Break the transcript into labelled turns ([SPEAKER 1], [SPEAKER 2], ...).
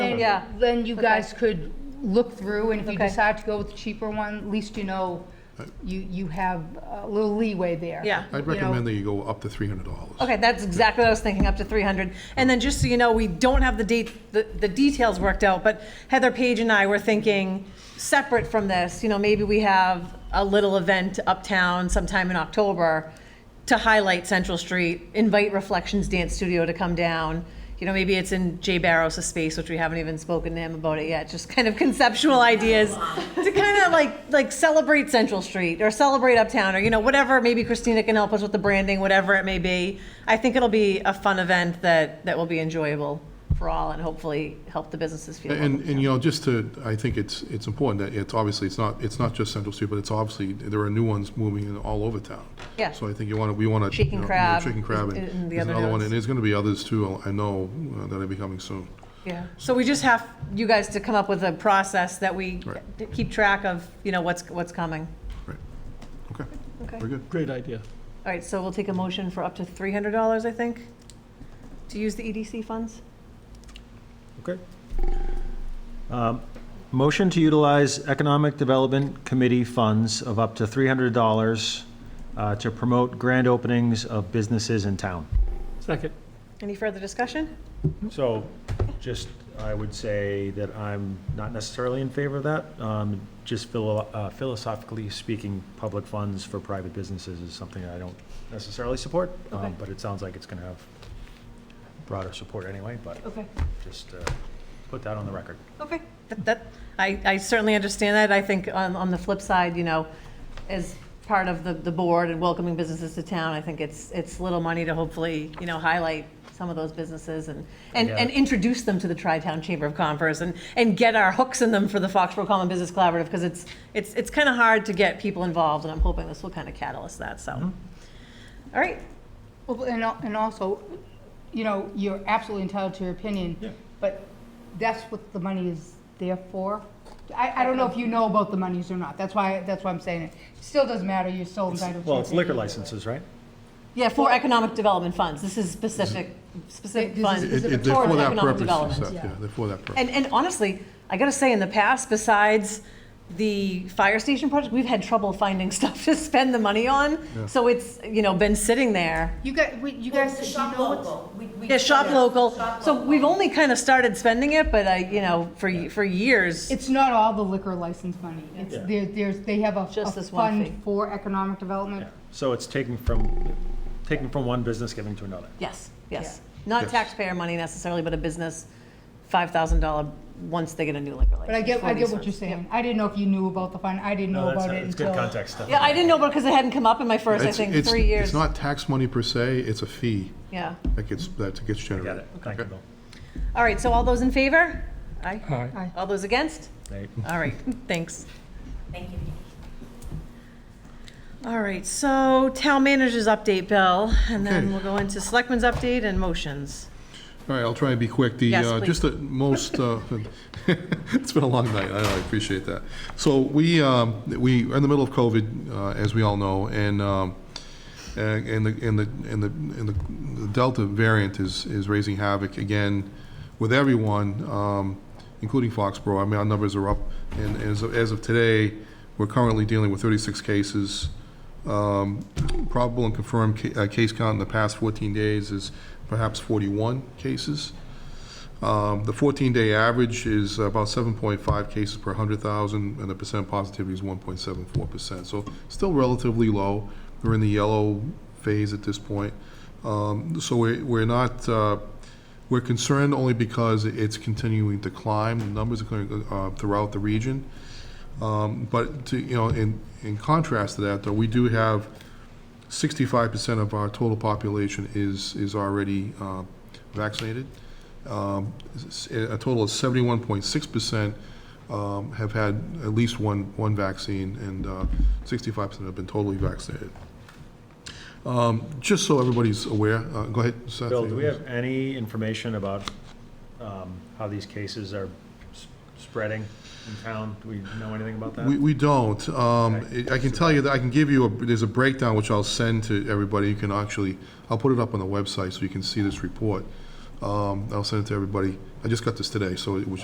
[SPEAKER 1] Yeah.
[SPEAKER 2] uh, Then you guys could look through, and if you
[SPEAKER 1] Okay.
[SPEAKER 2] decide to go with the cheaper one, at least you know, you, you have a little leeway there.
[SPEAKER 1] Yeah.
[SPEAKER 2] you
[SPEAKER 3] I'd
[SPEAKER 2] know.
[SPEAKER 3] recommend that you go up to three hundred dollars.
[SPEAKER 1] Okay, that's exactly what I was thinking, up to 300. And then just so you know, we don't have the date, the the details worked out, but Heather Page and I were thinking, separate from this, you know, maybe we have a little event uptown sometime in October to highlight Central Street, invite Reflections Dance Studio to come down. You know, maybe it's in Jay Barros' space, which we haven't even spoken to him about it yet, just kind of conceptual ideas to kind of like, like celebrate Central Street or celebrate Uptown or, you know, whatever, maybe Christina can help us with the branding, whatever it may be. I think it'll be a fun event that, that will be enjoyable for all and hopefully help the businesses feel welcome.
[SPEAKER 3] And, and you know, just to, I think it's, it's important that it's obviously, it's not, it's not just Central Street, but it's obviously, there are new ones moving in all over town.
[SPEAKER 1] Yeah.
[SPEAKER 3] So I think you want to, we want to.
[SPEAKER 1] Shaken Crab
[SPEAKER 3] Chicken Crab,
[SPEAKER 1] is- and
[SPEAKER 3] and
[SPEAKER 1] the
[SPEAKER 3] there's
[SPEAKER 1] other
[SPEAKER 3] another one,
[SPEAKER 1] ones.
[SPEAKER 3] and there's going to be others too, I know, uh, that are becoming soon.
[SPEAKER 1] Yeah, so we just have you guys to come up with a process that we
[SPEAKER 3] Right.
[SPEAKER 1] d- keep track of, you know, what's, what's coming.
[SPEAKER 3] Right, okay,
[SPEAKER 1] Okay.
[SPEAKER 3] very good.
[SPEAKER 4] Great idea.
[SPEAKER 1] All right, so we'll take a motion for up to $300, I think, to use the EDC funds?
[SPEAKER 4] Okay. Um, Motion to utilize Economic Development Committee funds of up to $300 uh, to promote grand openings of businesses in town.
[SPEAKER 5] Second.
[SPEAKER 1] Any further discussion?
[SPEAKER 4] So just, I would say that I'm not necessarily in favor of that. Um, Just philo- uh, philosophically speaking, public funds for private businesses is something I don't necessarily support, um,
[SPEAKER 1] Okay.
[SPEAKER 4] but it sounds like it's going to have broader support anyway, but
[SPEAKER 1] Okay,
[SPEAKER 4] just uh, put that on the record.
[SPEAKER 1] okay. That- That, I, I certainly understand that. I think on, on the flip side, you know, as part of the, the board and welcoming businesses to town, I think it's, it's little money to hopefully, you know, highlight some of those businesses and, and,
[SPEAKER 4] Yeah.
[SPEAKER 1] and introduce them to the Tri-Town Chamber of Commerce and, and get our hooks in them for the Foxborough Common Business Collaborative, because it's, it's, it's kind of hard to get people involved, and I'm hoping this will kind of catalyst that, so. All right,
[SPEAKER 2] Well, and, al- and also, you know, you're absolutely entitled to your opinion.
[SPEAKER 4] Yeah.
[SPEAKER 2] But that's what the money is there for. I, I don't know if you know about the monies or not, that's why, that's why I'm saying it. Still doesn't matter, you're still entitled to your
[SPEAKER 4] Well, it's liquor
[SPEAKER 2] opinion.
[SPEAKER 4] licenses, right?
[SPEAKER 1] yeah, for economic development funds, this is specific, specific
[SPEAKER 2] This is
[SPEAKER 1] funds.
[SPEAKER 3] It- it- They're
[SPEAKER 1] towards
[SPEAKER 3] for that
[SPEAKER 1] economic
[SPEAKER 3] purpose, it's
[SPEAKER 1] development.
[SPEAKER 3] that- yeah, they're for that purpose.
[SPEAKER 1] And, and honestly, I gotta say, in the past, besides the fire station project, we've had trouble finding stuff to spend the money on. So it's, you know, been sitting there.
[SPEAKER 2] You guys, we- you
[SPEAKER 6] Well,
[SPEAKER 2] guys,
[SPEAKER 6] the
[SPEAKER 2] you
[SPEAKER 6] shop
[SPEAKER 2] know what's.
[SPEAKER 6] local. We- we-
[SPEAKER 1] Yeah, shop local.
[SPEAKER 6] Shop
[SPEAKER 1] So
[SPEAKER 6] local.
[SPEAKER 1] we've only kind of started spending it, but I, you know, for, y- for years.
[SPEAKER 2] It's not all the liquor license money. It's,
[SPEAKER 4] Yeah.
[SPEAKER 2] there, there's, they have a
[SPEAKER 1] Just
[SPEAKER 2] a
[SPEAKER 1] this one fee.
[SPEAKER 2] Fund for economic development.
[SPEAKER 4] Yeah. So it's taking from, taking from one business, giving to another.
[SPEAKER 1] Yes, yes. Not
[SPEAKER 3] Yes.
[SPEAKER 1] taxpayer money necessarily, but a business, $5,000, once they get a new liquor license.
[SPEAKER 2] But I get,
[SPEAKER 1] for
[SPEAKER 2] I get
[SPEAKER 1] these
[SPEAKER 2] what you're
[SPEAKER 1] ones.
[SPEAKER 2] saying. I didn't know if you knew about the fund. I didn't know about it
[SPEAKER 4] It's good
[SPEAKER 2] until.
[SPEAKER 4] context stuff.
[SPEAKER 1] Yeah, I didn't know because it hadn't come up in my first, I
[SPEAKER 3] It's-
[SPEAKER 1] think,
[SPEAKER 3] it's-
[SPEAKER 1] three years.
[SPEAKER 3] It's not tax money per se, it's a fee
[SPEAKER 1] Yeah.
[SPEAKER 3] that gets, that gets
[SPEAKER 4] Got
[SPEAKER 3] generated.
[SPEAKER 4] it. Thank you,
[SPEAKER 3] Okay.
[SPEAKER 4] Bill.
[SPEAKER 1] All right, so all those in favor? Aye.
[SPEAKER 5] Aye.
[SPEAKER 2] Aye.
[SPEAKER 1] All those against?
[SPEAKER 4] Nate?
[SPEAKER 1] All right, thanks.
[SPEAKER 6] Thank you.
[SPEAKER 1] All right, so town manager's update, Bill, and then
[SPEAKER 3] Okay.
[SPEAKER 1] we'll go into selectmen's update and motions.
[SPEAKER 3] All right, I'll try and be quick. The,
[SPEAKER 1] Yes,
[SPEAKER 3] uh,
[SPEAKER 1] please.
[SPEAKER 3] just the most, uh, it's been a long night, I know, I appreciate that. So we, um, we are in the middle of COVID, uh, as we all know, and, um, and and the, and the, and the, and the Delta variant is, is raising havoc again with everyone, um, including Foxborough. I mean, our numbers are up, and as, of- as of today, we're currently dealing with 36 cases. Um, Probable and confirmed ca- uh, case count in the past 14 days is perhaps 41 cases. Um, The 14-day average is about 7.5 cases per 100,000, and the percent positivity is 1.74%. So still relatively low. We're in the yellow phase at this point. Um, So we're we're not, uh, we're concerned only because it's continuing to climb. The numbers are going uh, throughout the region. Um, But to, you know, in, in contrast to that, though, we do have sixty-five percent of our total population is, is already uh, vaccinated. Um, s- A total of seventy-one point six percent um, have had at least one, one vaccine, and uh, sixty-five percent have been totally vaccinated. Um, Just so everybody's aware, uh, go ahead, Seth.
[SPEAKER 4] Bill, do we have any information about um, how these cases are s- spreading in town? Do we know anything about that?
[SPEAKER 3] We, we don't. Um,
[SPEAKER 4] Okay.
[SPEAKER 3] I I can tell you that, I can give you, a there's a breakdown which I'll send to everybody. You can actually, I'll put it up on the website so you can see this report. Um, I'll send it to everybody. I just got this today, so it was